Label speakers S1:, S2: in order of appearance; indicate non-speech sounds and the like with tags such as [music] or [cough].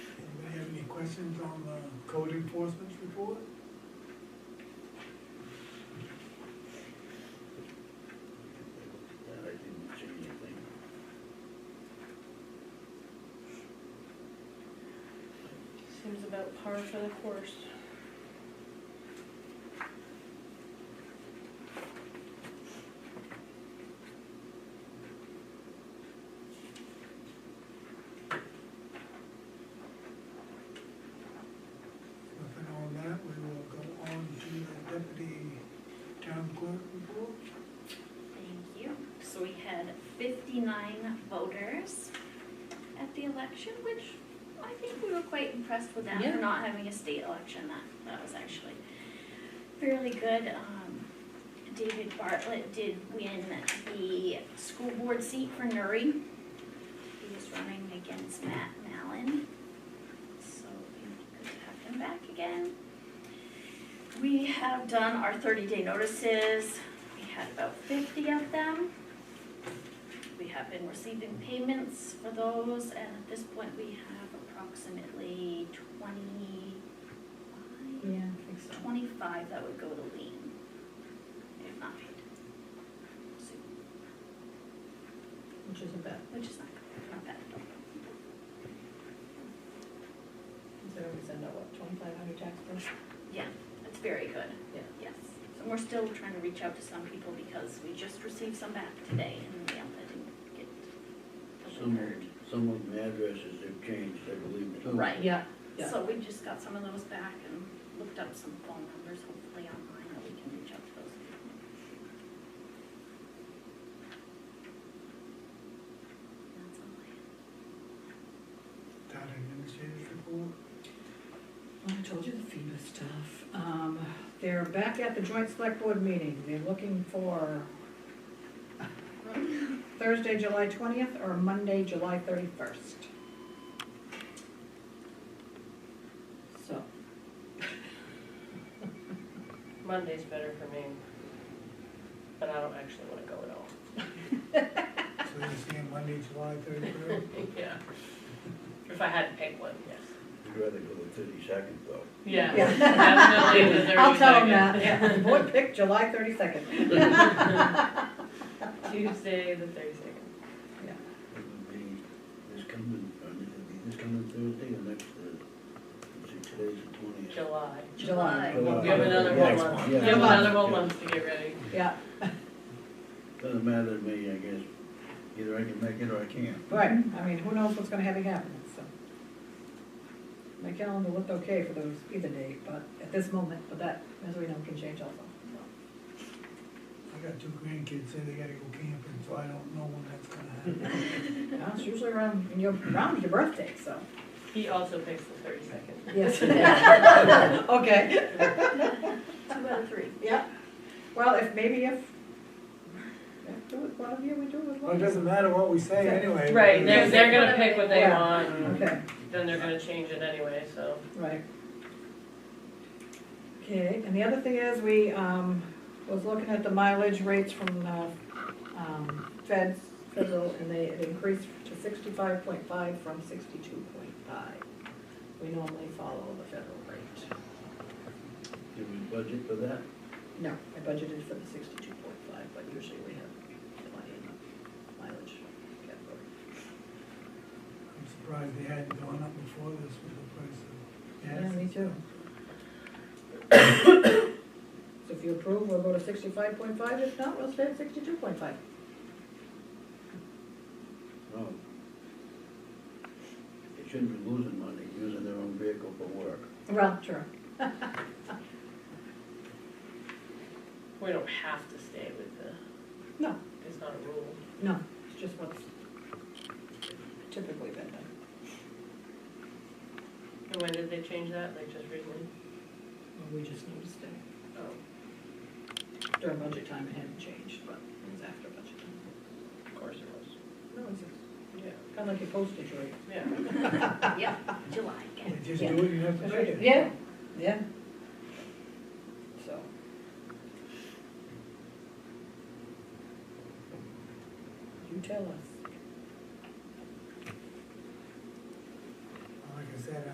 S1: questions on the code enforcement report?
S2: That I didn't change anything.
S3: Seems about par for the course.
S1: Nothing on that, we will go on to the deputy town clerk report.
S4: Thank you. So we had fifty-nine voters at the election, which I think we were quite impressed with that
S3: Yeah.
S4: for not having a state election. That, that was actually fairly good. Um, David Bartlett did win the school board seat for Nuri. He was running against Matt Mallon. So it'd be good to have him back again. We have done our thirty-day notices. We had about fifty of them. We have been receiving payments for those, and at this point, we have approximately twenty-five,
S3: I think
S4: twenty-five that would go to lean, if not paid. So,
S3: Which is about,
S4: Which is not, not bad at all.
S3: so we send out what, twenty-five hundred tax bills?
S4: Yeah, it's very good.
S3: Yeah.
S4: Yes, and we're still trying to reach out to some people because we just received some back today in the mail that didn't get
S2: Some,
S4: delivered.
S2: some of the addresses have changed, I believe, too.
S4: Right.
S3: Yeah, yeah.
S4: So we just got some of those back and looked up some phone numbers, hopefully online, that we can reach out to those people. That's all I have.
S1: Town administrator's report.
S5: Well, I told you the FEMA stuff. Um, they're back at the joint select board meeting. They're looking for Thursday, July twentieth, or Monday, July thirty-first. So,
S6: Monday's better for me, but I don't actually wanna go at all.
S1: So you're seeing Monday, July thirty-third?
S6: [laughs] Yeah. If I had to pick one, yes.
S2: I'd rather go with thirty-second though.
S6: Yeah,
S5: Yeah.
S6: [laughs] definitely the
S5: [laughs]
S6: thirty
S5: I'll tell them
S6: second.
S5: that, yeah, the board picked July thirty-second.
S6: Tuesday, the thirty second.
S2: It'll be this coming, I mean, it'll be this coming Thursday or next Thursday. Let's see, today's the twentieth.
S6: July.
S5: July.
S2: July.
S6: We have another
S2: Yeah,
S6: whole month, we
S2: yeah.
S6: have another whole month to get ready.
S5: Yeah,
S2: Doesn't matter to me, I guess. Either I can make it or I can't.
S5: right, I mean, who knows what's gonna have it happen, so. My calendar looked okay for those either day, but at this moment, but that, as we know, can change also, so.
S1: I got two grandkids, say they gotta go camping, so I don't know when that's gonna happen.
S5: Yeah, it's usually around, in your, around your birthday, so.
S6: He also picks the thirty second.
S5: Yes. [laughs] Okay.
S4: Two out of three.
S5: Yeah. Well, if, maybe if, if do it with one of you, we do it with
S1: Well,
S5: one
S1: it
S5: of you.
S1: doesn't matter what we say anyway.
S6: Right, they're, they're gonna pick what they
S5: Yeah.
S6: want, and
S5: Okay,
S6: then they're gonna change it anyway, so.
S5: right. Okay, and the other thing is, we, um, was looking at the mileage rates from, uh, um, feds, federal, and they, it increased to sixty-five point five from sixty-two point five. We normally follow the federal rate.
S2: Did we budget for that?
S5: No, I budgeted for the sixty-two point five, but usually we have plenty in the mileage category.
S1: I'm surprised they hadn't gone up before this with the price of gas.
S5: Yeah, me too. So if you approve, we'll go to sixty-five point five, if not, we'll stay at sixty-two point five.
S2: No. They shouldn't be losing money using their own vehicle for work.
S5: Well, true.
S6: We don't have to stay with the,
S5: [laughs] No,
S6: it's not a rule.
S5: no, it's just what's typically been done.
S6: And when did they change that, like just recently?
S5: Well, we just noticed it
S6: Oh.
S5: during budget time, it hadn't changed, but it was after budget time.
S6: Of course it was.
S5: No, it's
S6: Yeah.
S5: kind of like your postage rate.
S6: Yeah.
S4: Yep, July again.
S1: They just do it and have to pay it.
S5: Yeah, yeah. So. You tell us.